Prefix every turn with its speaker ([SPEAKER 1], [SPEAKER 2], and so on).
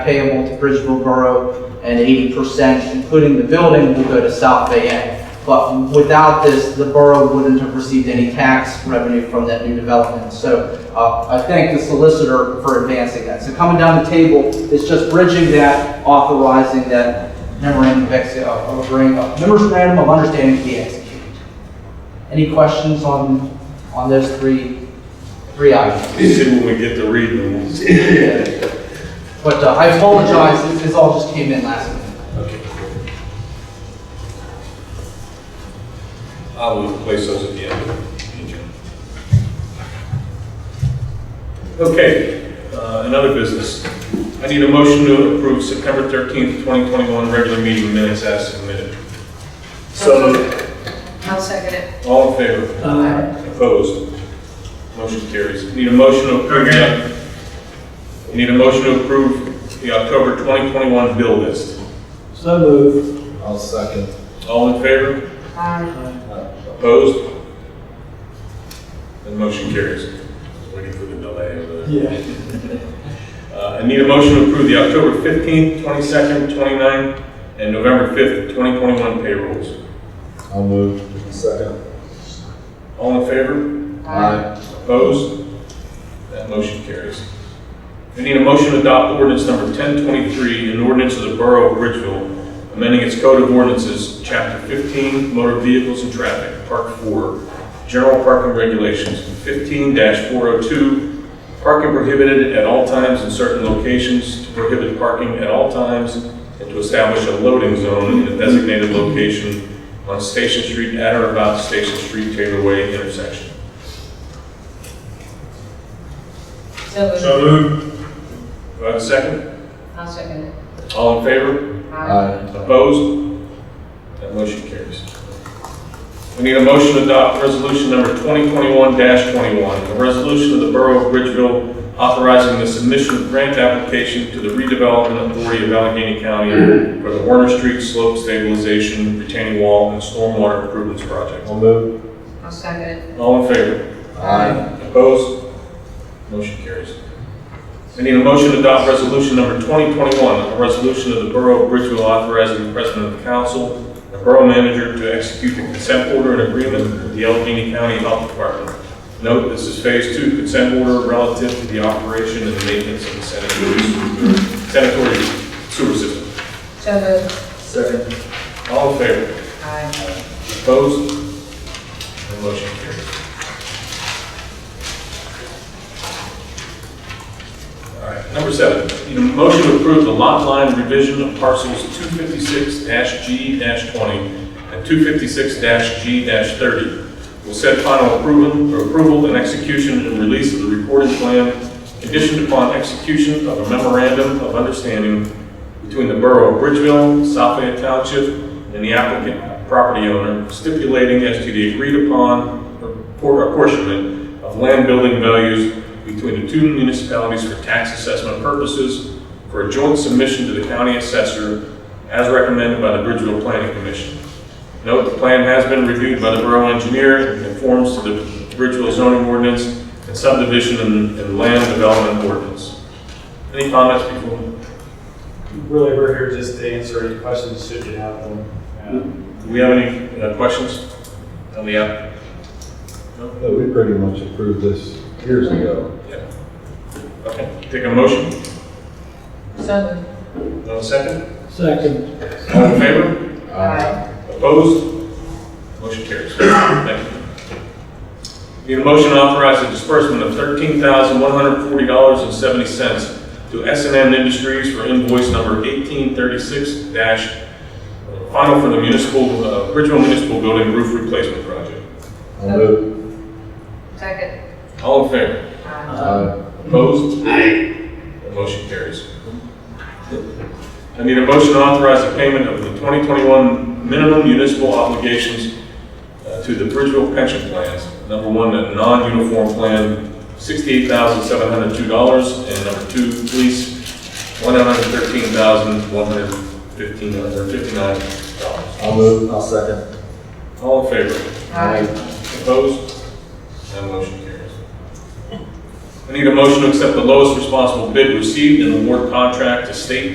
[SPEAKER 1] payable to Bridgeville Borough, and eighty percent, including the building, will go to South Fayette. But without this, the borough wouldn't have received any tax revenue from that new development. So uh, I thank the solicitor for advancing that. So coming down the table is just bridging that, authorizing that memorandum of ex- of agreeing, uh, memorandum of understanding to be executed. Any questions on, on those three, three items?
[SPEAKER 2] See when we get to reading them, we'll see.
[SPEAKER 1] But uh, I apologize, this- this all just came in last minute.
[SPEAKER 2] I will place those at the end of the agenda. Okay, uh, another business. I need a motion to approve September 13th, 2021 regular meeting minutes as submitted.
[SPEAKER 3] So-
[SPEAKER 4] I'll second it.
[SPEAKER 2] All in favor? Opposed? Motion carries. Need a motion to approve, the- you need a motion to approve the October 2021 bill list.
[SPEAKER 3] So moved.
[SPEAKER 5] I'll second.
[SPEAKER 2] All in favor?
[SPEAKER 4] Aye.
[SPEAKER 2] Opposed? The motion carries. Waiting for the delay of the.
[SPEAKER 3] Yeah.
[SPEAKER 2] Uh, I need a motion to approve the October 15th, 22nd, 29th, and November 5th, 2021 payrolls.
[SPEAKER 5] I'll move. Second.
[SPEAKER 2] All in favor? Opposed? That motion carries. I need a motion to adopt ordinance number 1023, an ordinance of the Borough of Ridgeville, amending its code of ordinances, Chapter 15, Motor Vehicles and Traffic, Part 4, General Parking Regulations, 15-402, parking prohibited at all times in certain locations, to prohibit parking at all times, and to establish a loading zone in a designated location on Station Street at or about Station Street Taylor Way intersection.
[SPEAKER 4] So moved.
[SPEAKER 2] moved. Do I have a second?
[SPEAKER 4] I'll second it.
[SPEAKER 2] All in favor?
[SPEAKER 5] Aye.
[SPEAKER 2] Opposed? That motion carries. We need a motion to adopt resolution number 2021-21, a resolution of the Borough of Bridgeville authorizing the submission of grant application to the redevelopment authority of Allegheny County for the Warner Street Slope Stabilization Retaining Wall and Stormwater Improvements Project.
[SPEAKER 5] I'll move.
[SPEAKER 4] I'll second it.
[SPEAKER 2] All in favor?
[SPEAKER 5] Aye.
[SPEAKER 2] Opposed? Motion carries. I need a motion to adopt resolution number 2021, a resolution of the Borough of Bridgeville authorizing the President of the Council and the Borough Manager to execute the consent order and agreement with the Allegheny County Health Department. Note, this is Phase 2 consent order relative to the operation and maintenance of the sanitary sanitary sewer system.
[SPEAKER 4] So moved.
[SPEAKER 5] Second.
[SPEAKER 2] All in favor?
[SPEAKER 4] Aye.
[SPEAKER 2] Opposed? The motion carries. All right, number seven, need a motion to approve the lot line revision of parcels 256-G-20 and 256-G-30. Will set final approval, or approval and execution and release of the recorded plan conditioned upon execution of a memorandum of understanding between the Borough of Bridgeville, South Fayette Township, and the applicant property owner stipulating as to the agreed upon por- apportionment of land building values between the two municipalities for tax assessment purposes for a joint submission to the county assessor as recommended by the Bridgeville Planning Commission. Note, the plan has been reviewed by the borough engineer and conforms to the Bridgeville zoning ordinance and subdivision and and land development ordinance. Any comments before?
[SPEAKER 3] Really, we're here just to answer any questions should you have them.
[SPEAKER 2] Do we have any uh, questions on the app?
[SPEAKER 5] We pretty much approved this years ago.
[SPEAKER 2] Okay, take a motion.
[SPEAKER 4] So moved.
[SPEAKER 2] No second?
[SPEAKER 3] Second.
[SPEAKER 2] All in favor?
[SPEAKER 4] Aye.
[SPEAKER 2] Opposed? Motion carries. Thank you. Need a motion to authorize the disbursement of $13,140.70 to s and M Industries for invoice number 1836- dash, uh, final for the municipal, uh, Bridgeville Municipal Building Roof Replacement Project.
[SPEAKER 5] I'll move.
[SPEAKER 4] Second.
[SPEAKER 2] All in favor?
[SPEAKER 4] Aye.
[SPEAKER 5] Aye.
[SPEAKER 2] Opposed? The motion carries. I need a motion to authorize the payment of the 2021 minimum municipal obligations uh, to the Bridgeville pension plans. Number one, a non-uniform plan, $68,702, and number two, police, $113,159.
[SPEAKER 5] I'll move. I'll second.
[SPEAKER 2] All in favor?
[SPEAKER 4] Aye.
[SPEAKER 2] Opposed? That motion carries. I I need a motion to accept the lowest responsible bid received and award contract to State